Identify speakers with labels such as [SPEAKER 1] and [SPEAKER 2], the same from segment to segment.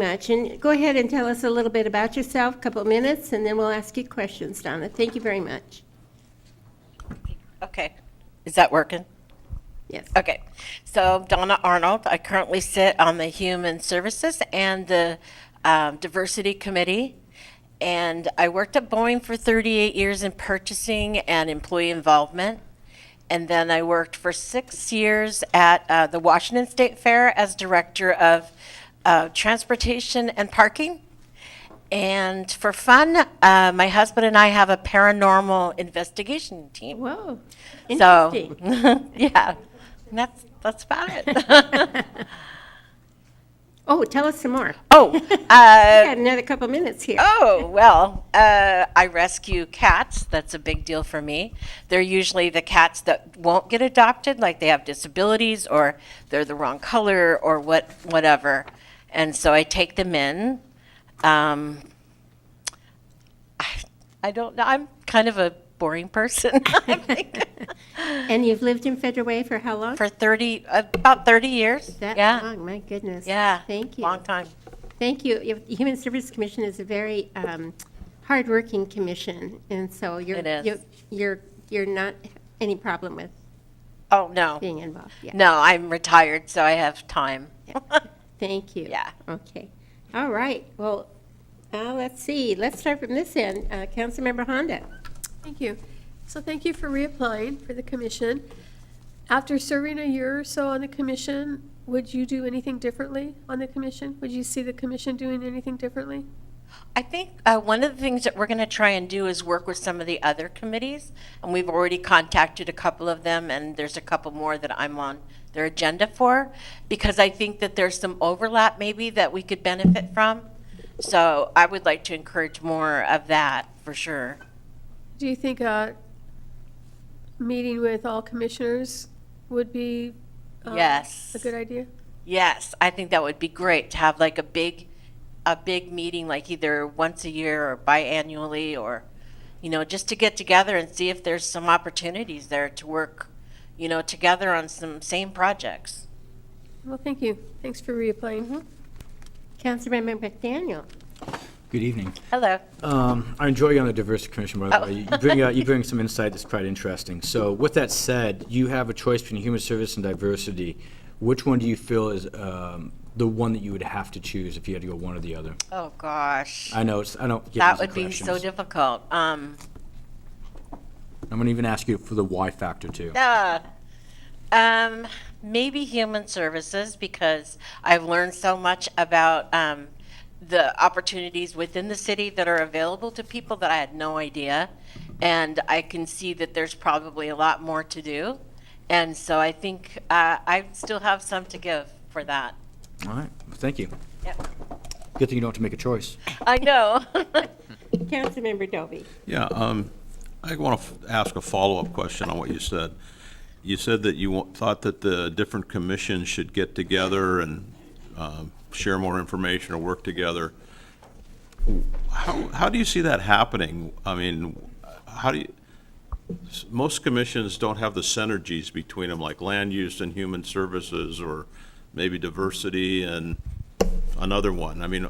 [SPEAKER 1] much. And go ahead and tell us a little bit about yourself, couple minutes, and then we'll ask you questions, Donna. Thank you very much.
[SPEAKER 2] Okay. Is that working?
[SPEAKER 1] Yes.
[SPEAKER 2] Okay. So Donna Arnold, I currently sit on the Human Services and the um, Diversity Committee. And I worked at Boeing for 38 years in purchasing and employee involvement. And then I worked for six years at uh, the Washington State Fair as Director of uh, Transportation and Parking. And for fun, uh, my husband and I have a paranormal investigation team.
[SPEAKER 1] Whoa.
[SPEAKER 2] So,
[SPEAKER 1] Interesting.
[SPEAKER 2] yeah, And that's, that's about it.
[SPEAKER 1] Oh, tell us some more.
[SPEAKER 2] oh,
[SPEAKER 1] We
[SPEAKER 2] uh,
[SPEAKER 1] got another couple minutes here.
[SPEAKER 2] oh, well, uh, I rescue cats. That's a big deal for me. They're usually the cats that won't get adopted, like they have disabilities or they're the wrong color or what, whatever. And so I take them in. Um, I, I don't know. I'm kind of a boring person. I think.
[SPEAKER 1] And you've lived in Federal Way for how long?
[SPEAKER 2] oh. for 30 about 30 years
[SPEAKER 1] That
[SPEAKER 2] yeah
[SPEAKER 1] long, my goodness.
[SPEAKER 2] yeah
[SPEAKER 1] Thank you.
[SPEAKER 2] long time
[SPEAKER 1] Thank you. If- The Human Services Commission is a very um, hardworking commission, and so you're,
[SPEAKER 2] It is.
[SPEAKER 1] you- you're, you're not any problem with
[SPEAKER 2] oh no
[SPEAKER 1] being involved. Yeah.
[SPEAKER 2] no i'm retired so i have time
[SPEAKER 1] Thank you.
[SPEAKER 2] Yeah.
[SPEAKER 1] Okay. All right. Well, uh, let's see. Let's start from this end. Uh, Councilmember Honda.
[SPEAKER 3] Thank you. So thank you for reapplying for the commission. After serving a year or so on the commission, would you do anything differently on the commission? Would you see the commission doing anything differently?
[SPEAKER 2] i think uh, one of the things that we're going to try and do is work with some of the other committees and we've already contacted a couple of them and there's a couple more that i'm on their agenda for because i think that there's some overlap maybe that we could benefit from so i would like to encourage more of that for sure
[SPEAKER 3] Do you think a meeting with all commissioners would be? um,
[SPEAKER 2] Yes.
[SPEAKER 3] A good idea?
[SPEAKER 2] Yes, I think that would be great to have like a big, a big meeting, like either once a year or biannually, or, you know, just to get together and see if there's some opportunities there to work, you know, together on some same projects.
[SPEAKER 3] Well, thank you. Thanks for reapplying.
[SPEAKER 1] Councilmember McDaniel.
[SPEAKER 4] Good evening.
[SPEAKER 2] Hello.
[SPEAKER 4] Um, I enjoy you on the Diversity Commission, by the
[SPEAKER 2] Oh.
[SPEAKER 4] way. You bring, uh, you bring some insight that's quite interesting. So with that said, you have a choice between human service and diversity. Which one do you feel is um, the one that you would have to choose if you had to go one or the other?
[SPEAKER 2] Oh, gosh.
[SPEAKER 4] I know, it's- I don't get
[SPEAKER 2] That
[SPEAKER 4] easy
[SPEAKER 2] would be so
[SPEAKER 4] questions.
[SPEAKER 2] difficult. Um,
[SPEAKER 4] I'm going to even ask you for the why factor, too.
[SPEAKER 2] uh, um, maybe human services because I've learned so much about um, the opportunities within the city that are available to people that I had no idea, and I can see that there's probably a lot more to do, and so I think uh, I still have some to give for that.
[SPEAKER 4] All right, well, thank you.
[SPEAKER 2] Yep.
[SPEAKER 4] Good thing you don't have to make a choice.
[SPEAKER 2] I know.
[SPEAKER 1] Councilmember Dovey.
[SPEAKER 5] Yeah, um, I want to ask a follow-up question on what you said. You said that you wa- thought that the different commissions should get together and um, share more information or work together. How, how do you see that happening? I mean, how do you, s- most commissions don't have the synergies between them, like land use and human services, or maybe diversity and another one. I mean,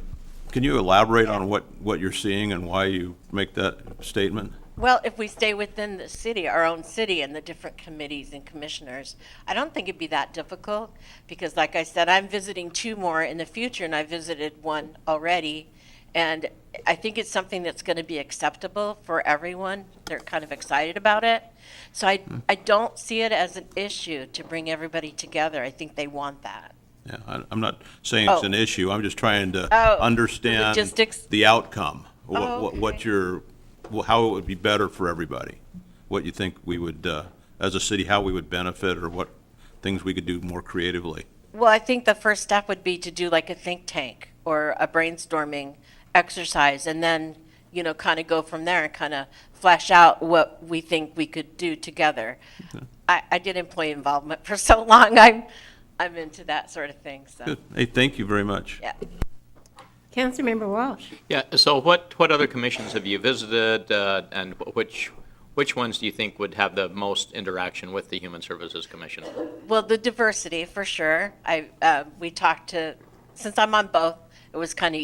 [SPEAKER 5] can you elaborate on what, what you're seeing and why you make that statement?
[SPEAKER 2] Well, if we stay within the city, our own city, and the different committees and commissioners, I don't think it'd be that difficult, because like I said, I'm visiting two more in the future, and I visited one already. And I think it's something that's going to be acceptable for everyone. They're kind of excited about it. So I, I don't see it as an issue to bring everybody together. I think they want that.
[SPEAKER 5] Yeah, I- I'm not saying it's
[SPEAKER 2] Oh.
[SPEAKER 5] an issue, I'm just trying to
[SPEAKER 2] Oh, the
[SPEAKER 5] understand
[SPEAKER 2] logistics.
[SPEAKER 5] the outcome.
[SPEAKER 2] Oh,
[SPEAKER 5] What, what- what
[SPEAKER 2] okay.
[SPEAKER 5] your, wh- how it would be better for everybody. What you think we would, uh, as a city, how we would benefit or what things we could do more creatively.
[SPEAKER 2] Well, I think the first step would be to do like a think tank or a brainstorming exercise and then, you know, kind of go from there and kind of flesh out what we think we could do together. I, I did employee involvement for so long. I'm, I'm into that sort of thing, so,
[SPEAKER 5] Good. Hey, thank you very much.
[SPEAKER 2] yeah.
[SPEAKER 1] Councilmember Walsh.
[SPEAKER 6] Yeah, so what, what other commissions have you visited, uh, and wh- which, which ones do you think would have the most interaction with the Human Services Commission?
[SPEAKER 2] Well, the diversity for sure. I uh, we talked to since I'm on both. it was kind of